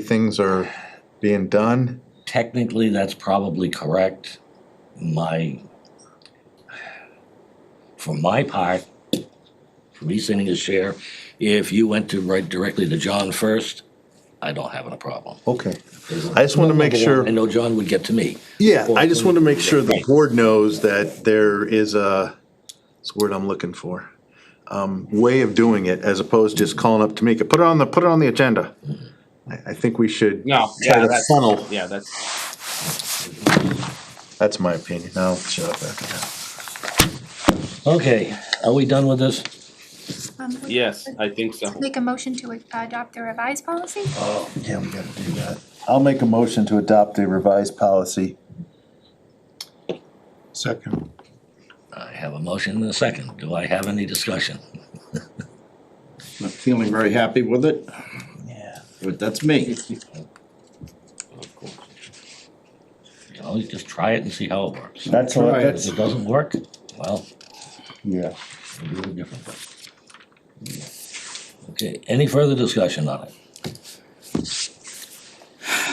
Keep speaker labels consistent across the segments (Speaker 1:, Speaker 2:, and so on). Speaker 1: things are being done.
Speaker 2: Technically, that's probably correct. My, for my part, for me sending a share, if you went to write directly to John first, I don't have a problem.
Speaker 1: Okay. I just want to make sure,
Speaker 2: I know John would get to me.
Speaker 1: yeah, I just want to make sure the board knows that there is a, it's the word I'm looking for. Um, way of doing it as opposed to just calling up Tamika, put it on the, put it on the agenda. I, I think we should.
Speaker 3: No,
Speaker 1: Try
Speaker 3: yeah,
Speaker 1: to
Speaker 3: that's,
Speaker 1: funnel.
Speaker 3: yeah, that's,
Speaker 1: That's my opinion. Now, shut up after that.
Speaker 2: Okay, are we done with this?
Speaker 4: Um, would you
Speaker 3: yes,
Speaker 4: like
Speaker 3: I think so.
Speaker 4: to Make a motion to uh, adopt the revised policy?
Speaker 1: Yeah, we gotta do that. I'll make a motion to adopt a revised policy.
Speaker 5: Second.
Speaker 2: I have a motion and a second. Do I have any discussion?
Speaker 5: Not feeling very happy with it,
Speaker 2: Yeah.
Speaker 5: but that's me.
Speaker 2: You know, you just try it and see how it works.
Speaker 5: That's
Speaker 2: all.
Speaker 5: all right.
Speaker 2: If it doesn't work, well,
Speaker 5: Yeah.
Speaker 2: we'll do it differently. Okay, any further discussion on it?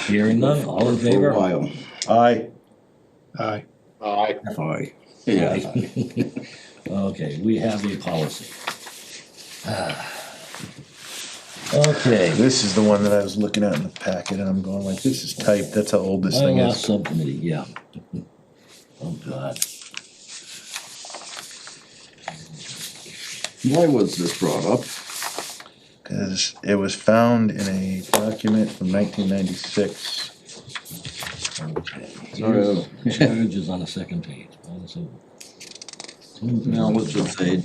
Speaker 2: Hearing none, all in
Speaker 5: For
Speaker 2: favor?
Speaker 5: a while. Aye.
Speaker 6: Aye.
Speaker 3: Aye.
Speaker 5: Aye. Yeah.
Speaker 2: Okay, we have a policy. Okay,
Speaker 1: This is the one that I was looking at in the packet and I'm going like, this is typed. That's how old this thing
Speaker 2: bylaw
Speaker 1: is.
Speaker 2: subcommittee, yeah. Oh, God.
Speaker 5: Why was this brought up?
Speaker 1: Cause it was found in a document from nineteen ninety-six.
Speaker 2: Okay.
Speaker 5: Sorry.
Speaker 2: Marriage is on the second page. Well, it's over.
Speaker 5: Now, let's just say,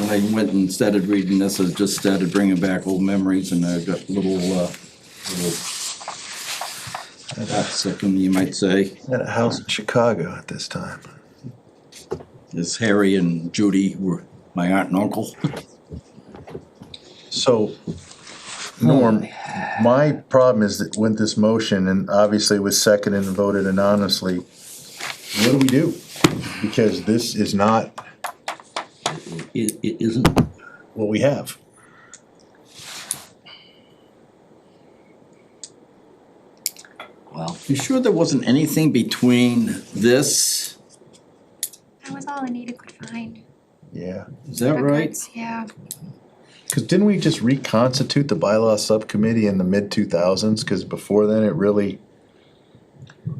Speaker 5: when I went and started reading this, I just started bringing back old memories and I got little, uh, little got sick of me, you might say.
Speaker 1: At a house in Chicago at this time.
Speaker 5: As Harry and Judy were my aunt and uncle.
Speaker 1: So, Norm, my problem is that with this motion, and obviously it was seconded and voted anonymously, what do we do? Because this is not
Speaker 2: It, it isn't,
Speaker 1: what we have.
Speaker 2: well,
Speaker 5: You sure there wasn't anything between this,
Speaker 4: That was all Anita could find.
Speaker 1: Yeah,
Speaker 5: is that right?
Speaker 4: Records, Yeah,
Speaker 1: because didn't we just reconstitute the bylaw subcommittee in the mid two thousands? Because before then, it really.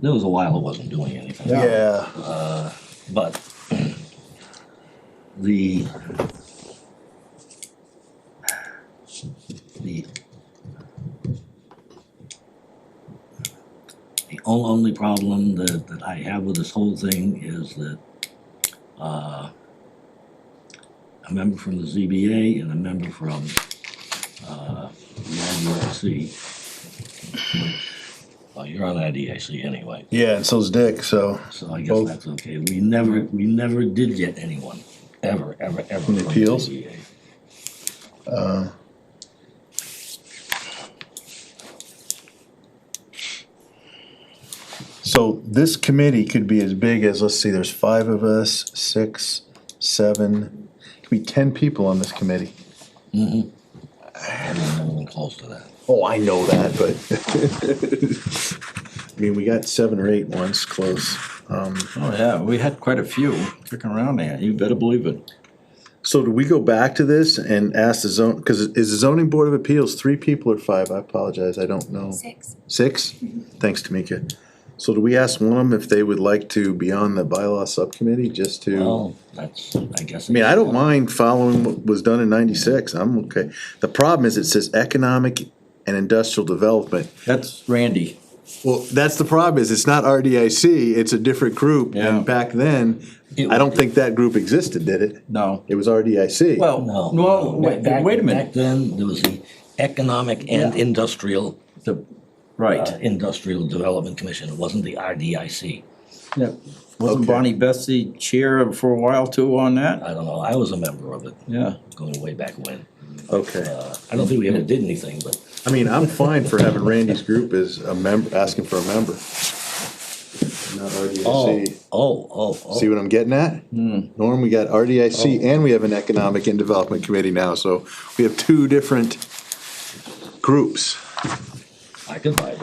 Speaker 2: there was a while it wasn't doing anything.
Speaker 1: Yeah.
Speaker 2: But the the the on- only problem that, that I have with this whole thing is that uh, a member from the ZBA and a member from uh, the IDIC. Well, you're on IDIC anyway.
Speaker 1: Yeah, and so's Dick, so.
Speaker 2: So I guess
Speaker 1: Both.
Speaker 2: that's okay. We never, we never did get anyone, ever, ever, ever. from
Speaker 1: appeals?
Speaker 2: ZBA.
Speaker 1: So this committee could be as big as, let's see, there's five of us, six, seven, it could be ten people on this committee.
Speaker 2: I don't know anyone close to that.
Speaker 1: Oh, I know that, but. I mean, we got seven or eight once close. Um,
Speaker 5: Oh, yeah, we had quite a few kicking around there, you better believe it.
Speaker 1: so do we go back to this and ask the zone, cause is the zoning board of appeals three people or five? I apologize, I don't know.
Speaker 4: six.
Speaker 1: Six? Thanks, Tamika. So do we ask one of them if they would like to be on the bylaw subcommittee just to?
Speaker 2: Well, that's, I guess.
Speaker 1: I mean, I don't mind following what was done in ninety-six, I'm okay. The problem is it says economic and industrial development.
Speaker 5: That's Randy.
Speaker 1: Well, that's the problem is it's not RDIC, it's a different group.
Speaker 5: Yeah.
Speaker 1: And back then,
Speaker 2: It
Speaker 1: I don't
Speaker 2: was-
Speaker 1: think that group existed, did it?
Speaker 5: No.
Speaker 1: It was RDIC.
Speaker 5: Well,
Speaker 2: No.
Speaker 5: no, wait,
Speaker 2: Back-
Speaker 5: wait a
Speaker 2: Back
Speaker 5: minute.
Speaker 2: then, there was the Economic and Industrial,
Speaker 5: The-
Speaker 2: uh,
Speaker 5: Right.
Speaker 2: Industrial Development Commission. It wasn't the RDIC.
Speaker 5: Yeah. Wasn't
Speaker 1: Okay.
Speaker 5: Bonnie Bessie chair for a while too on that?
Speaker 2: I don't know. I was a member of it
Speaker 5: Yeah.
Speaker 2: going way back when.
Speaker 1: Okay.
Speaker 2: Uh, I don't think we ever did anything, but
Speaker 1: I mean, I'm fine for having Randy's group as a member, asking for a member. Not
Speaker 2: oh,
Speaker 1: RDIC.
Speaker 2: oh, oh, oh.
Speaker 1: See what I'm getting at? Norm, we got RDIC and we have an Economic and Development Committee now, so we have two different groups.
Speaker 2: I can buy that.